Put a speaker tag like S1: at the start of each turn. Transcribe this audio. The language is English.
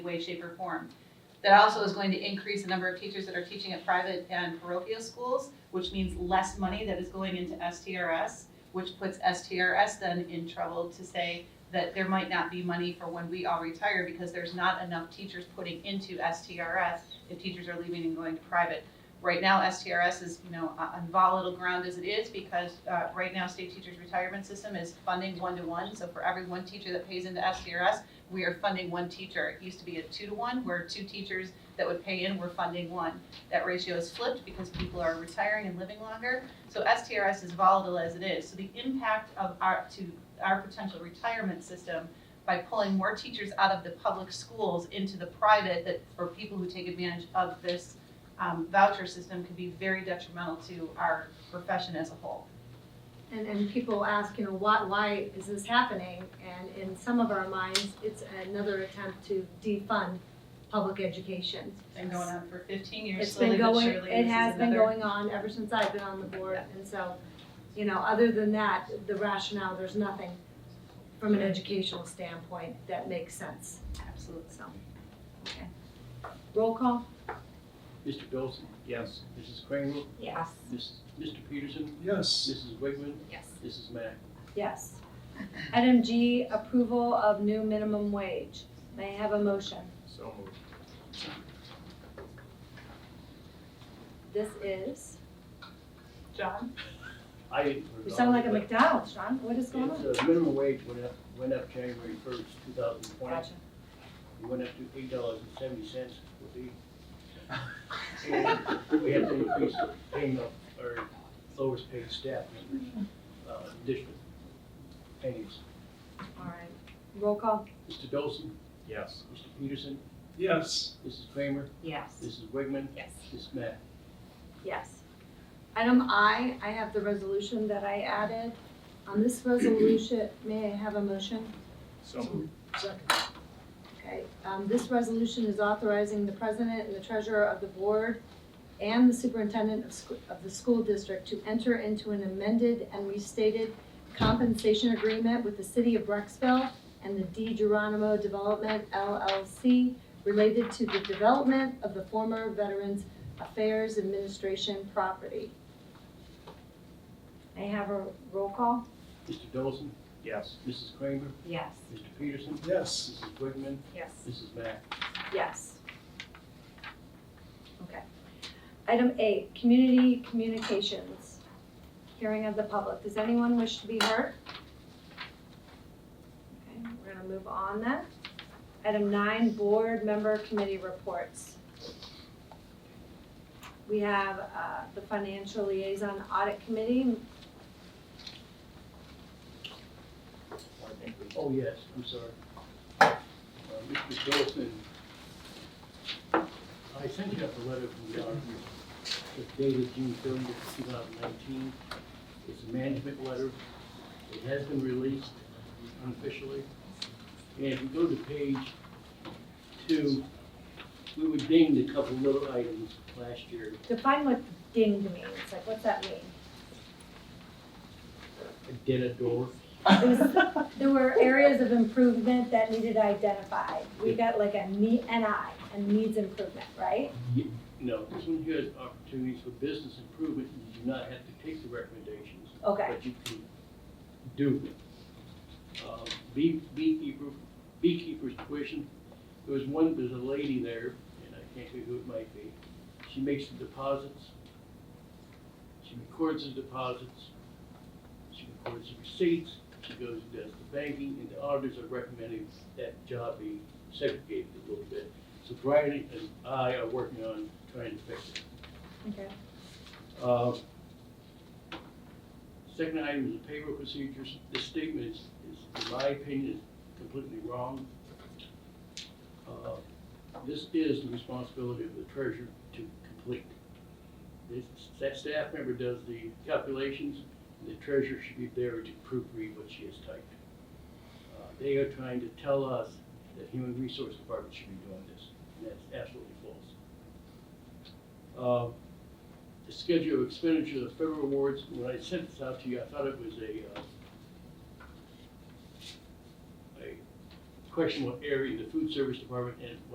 S1: way, shape, or form. That also is going to increase the number of teachers that are teaching at private and parochial schools, which means less money that is going into STRS, which puts STRS then in trouble to say that there might not be money for when we all retire because there's not enough teachers putting into STRS if teachers are leaving and going to private. Right now, STRS is, you know, on volatile ground as it is because uh, right now, state teachers' retirement system is funding one-to-one. So for every one teacher that pays into STRS, we are funding one teacher. It used to be a two to one, where two teachers that would pay in were funding one. That ratio is flipped because people are retiring and living longer. So STRS is volatile as it is. So the impact of our, to our potential retirement system by pulling more teachers out of the public schools into the private that, for people who take advantage of this um, voucher system could be very detrimental to our profession as a whole.
S2: And, and people ask, you know, why, why is this happening? And in some of our minds, it's another attempt to defund public education.
S1: Been going on for fifteen years
S2: It's been
S1: slowly but
S2: going,
S1: surely. this
S2: it
S1: is
S2: has been
S1: another-
S2: going on ever since I've been on the board,
S1: Yeah.
S2: and so, you know, other than that, the rationale, there's nothing from an educational standpoint that makes sense,
S1: Absolutely.
S2: so, okay. Roll call?
S3: Mr. Dolson? Yes. Mrs. Kramer?
S2: Yes.
S3: Miss- Mr. Peterson?
S4: Yes.
S3: Mrs. Wigman?
S2: Yes.
S3: Mrs. Mack?
S2: Yes. Item G, approval of new minimum wage. May I have a motion?
S4: So moved.
S2: This is,
S1: John?
S3: I didn't.
S2: you sound like a McDonald's, Sean. What is going on?
S3: It's, uh, minimum wage went up, went up January first, two thousand twenty.
S2: Gotcha.
S3: It went up to eight dollars and seventy cents would be. And we have to increase the paying of our lowest paid staff members, uh, additional pennies.
S2: All right. Roll call?
S3: Mr. Dolson?
S4: Yes.
S3: Mr. Peterson?
S4: Yes.
S3: Mrs. Kramer?
S2: Yes.
S3: Mrs. Wigman?
S1: Yes.
S3: Mrs. Mack?
S2: Yes. Item I, I have the resolution that I added. On this resolution, may I have a motion?
S4: So moved.
S2: Okay, um, this resolution is authorizing the president and the treasurer of the board and the superintendent of, sc- of the school district to enter into an amended and restated compensation agreement with the city of Brexville and the D Geronimo Development LLC related to the development of the former Veterans Affairs Administration property. May I have a roll call?
S3: Mr. Dolson?
S4: Yes.
S3: Mrs. Kramer?
S2: Yes.
S3: Mr. Peterson?
S4: Yes.
S3: Mrs. Wigman?
S2: Yes.
S3: Mrs. Mack?
S2: Yes. Okay. Item eight, community communications, hearing of the public. Does anyone wish to be heard? Okay, we're gonna move on then. Item nine, board member committee reports. We have uh, the financial liaison audit committee.
S3: Oh, yes, I'm sorry. Uh, Mr. Dolson, I sent you up a letter from the auditor It's dated June thirtieth, two thousand nineteen. It's a management letter. It has been released unofficially. And if you go to page two, we were dinged a couple little items last year.
S2: Define what dinged means, like what's that mean?
S3: A dead door.
S2: It was, there were areas of improvement that needed identified. We got like a need, an eye, a needs improvement, right?
S3: No, this one here is opportunities for business improvement. You do not have to take the recommendations.
S2: Okay,
S3: But you can do. Uh, bee- Beekeeper, beekeeper's tuition, there was one, there's a lady there, and I can't think who it might be. She makes the deposits. She records the deposits. She records the receipts. She goes and does the banking, and the auditors are recommending that job be segregated a little bit. So Brian and I are working on trying to fix it.
S2: okay,
S3: Uh, Second item is the payroll procedures. This statement is, is, in my opinion, is completely wrong. Uh, This is the responsibility of the treasurer to complete. This, that staff member does the calculations, and the treasurer should be there to proofread what she has typed. Uh, They are trying to tell us that human resource department should be doing this, and that's absolutely false. Uh, the schedule of expenditure of federal awards, when I sent this out to you, I thought it was a, uh, a question what area the food service department and